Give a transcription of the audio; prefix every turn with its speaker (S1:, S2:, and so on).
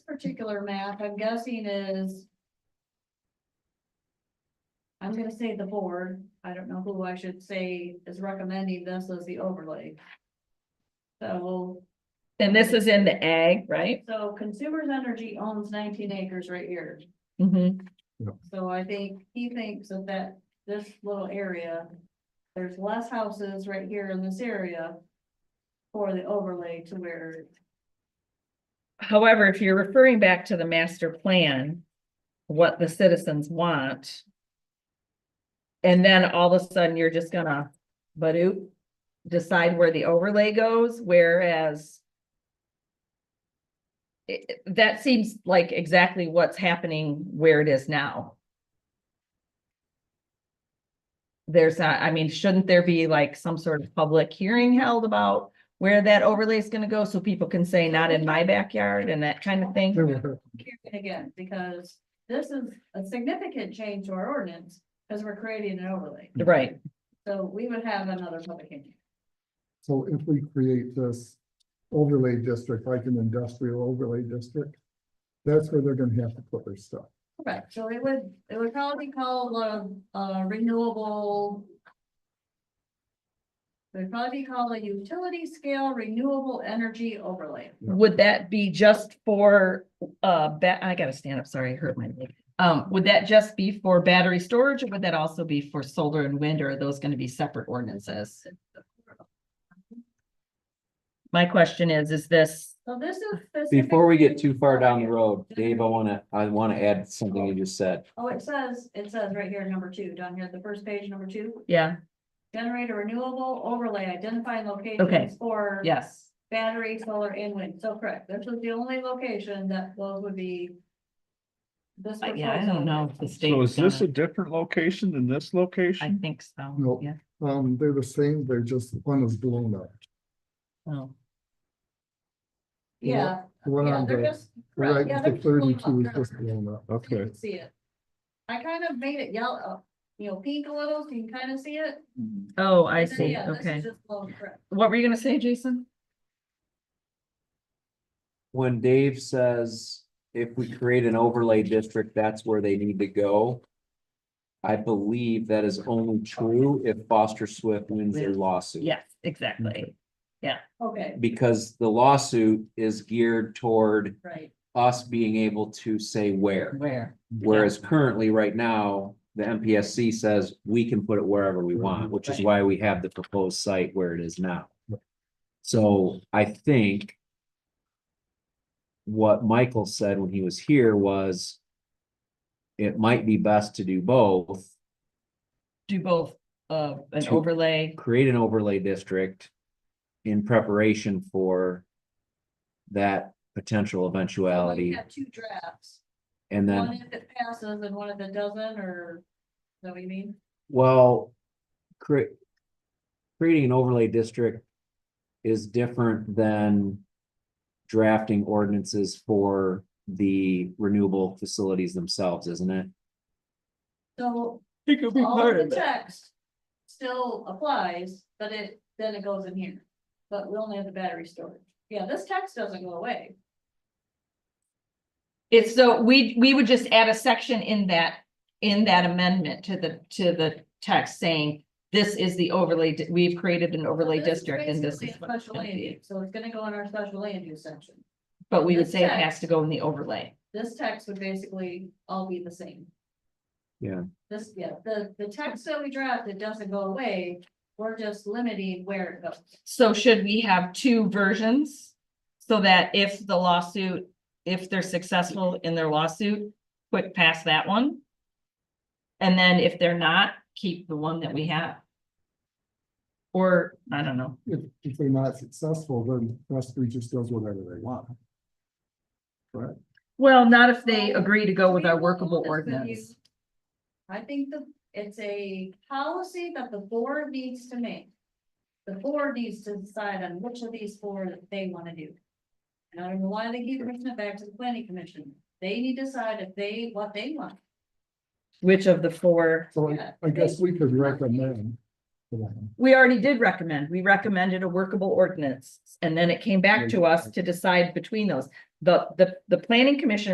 S1: particular map, I'm guessing is. I'm gonna say the board, I don't know who I should say is recommending this as the overlay. So,
S2: And this is in the ag, right?
S1: so Consumers Energy owns nineteen acres right here.
S2: Mm-hmm.
S1: So I think he thinks that that, this little area, there's less houses right here in this area. For the overlay to where,
S2: However, if you're referring back to the master plan, what the citizens want. And then all of a sudden, you're just gonna, but decide where the overlay goes, whereas. it- it- that seems like exactly what's happening where it is now. There's not, I mean, shouldn't there be like some sort of public hearing held about where that overlay is gonna go, so people can say not in my backyard and that kind of thing?
S1: here again, because this is a significant change to our ordinance. Cause we're creating an overlay,
S2: Right,
S1: so we would have another public hearing.
S3: So if we create this overlay district, like an industrial overlay district, that's where they're gonna have to put their stuff.
S1: Correct, so it would, it would probably be called a, a renewable. It'd probably be called a utility scale renewable energy overlay.
S2: would that be just for, uh, ba- I gotta stand up, sorry, I hurt my leg. Um, would that just be for battery storage, or would that also be for solar and wind, or are those gonna be separate ordinances? My question is, is this,
S1: So this is. specific-
S4: Before we get too far down the road, Dave, I wanna, I wanna add something you just said.
S1: Oh, it says, it says right here, number two, down here, the first page, number two,
S2: yeah,
S1: generate a renewable overlay identifying
S2: Okay.
S1: locations for.
S2: yes,
S1: Battery, solar and wind, so correct, this is the only location that those would be. This.
S2: I- yeah, I don't know if the state.
S5: So is this a different location than this
S2: I
S5: location?
S2: think so,
S3: No.
S2: yeah,
S3: Um, they're the same, they're just, one is blown up.
S2: oh,
S1: Yeah,
S3: The one
S1: yeah,
S3: on
S1: they're
S3: the
S1: just.
S3: right,
S1: yeah, they're
S3: the
S1: just blown up.
S3: thirty-two is just blown up.
S1: You
S5: Okay.
S1: can see it. I kind of made it yellow, uh, you know, pink a little, so you can kind of see it.
S2: oh, I
S1: But then,
S2: see,
S1: yeah, this is
S2: okay.
S1: just blown correct.
S2: What were you gonna say, Jason?
S4: When Dave says if we create an overlay district, that's where they need to go. I believe that is only true if Foster Swift wins their lawsuit.
S2: Yes, exactly,
S1: Okay,
S4: Because the lawsuit is geared toward
S1: right,
S4: us being able to say where.
S2: where,
S4: Whereas currently, right now, the MPSC says we can put it wherever we want, which is why we have the proposed site where it is now. So I think what Michael said when he was here was it might be best to do both,
S2: do both, uh, an
S4: To-
S2: overlay,
S4: create an overlay district in preparation for that potential
S1: so we
S4: eventuality,
S1: have two drafts.
S4: and then.
S1: One if it passes and one if it doesn't, or, is that what you mean?
S4: Well, create. Creating an overlay district is different than. Drafting ordinances for the renewable facilities themselves, isn't it?
S1: So
S5: He could
S1: all of the text still applies, but it, then it goes in here, but we only have the battery storage. Yeah, this text doesn't go away.
S2: It's so, we, we would just add a section in that, in that amendment to the, to the text saying. This is the overlay, di- we've created an overlay
S1: So this is
S2: district and this
S1: basically
S2: is.
S1: a
S2: what it's
S1: Special
S2: gonna
S1: land
S2: be.
S1: use, so it's gonna go in our special land use section.
S2: But we would
S1: This
S2: say it
S1: text.
S2: has to go in the overlay.
S1: This text would basically all be the same.
S4: Yeah.
S1: This, yeah, the, the text that we drafted doesn't go away, we're just limiting where it goes.
S2: So should we have two versions? So that if the lawsuit, if they're successful in their lawsuit, quick pass that one. And then if they're not, keep the one that we have. Or, I don't know.
S3: If, if they're not successful, then West Street just does whatever they want.
S2: Well, not if they
S1: Well,
S2: agree to go with
S1: be
S2: our workable
S1: honest with you,
S2: ordinance.
S1: I think that it's a policy that the board needs to make. The board needs to decide on which of these four that they wanna do. And I don't know why they keep bringing it back to the planning commission. They need to decide if they, what they want.
S2: Which of the four?
S3: So
S1: Yeah,
S3: I- I guess we could recommend. to them.
S2: We already did recommend, we recommended a workable ordinance, and then it came back to us to decide between those. the, the, the planning commission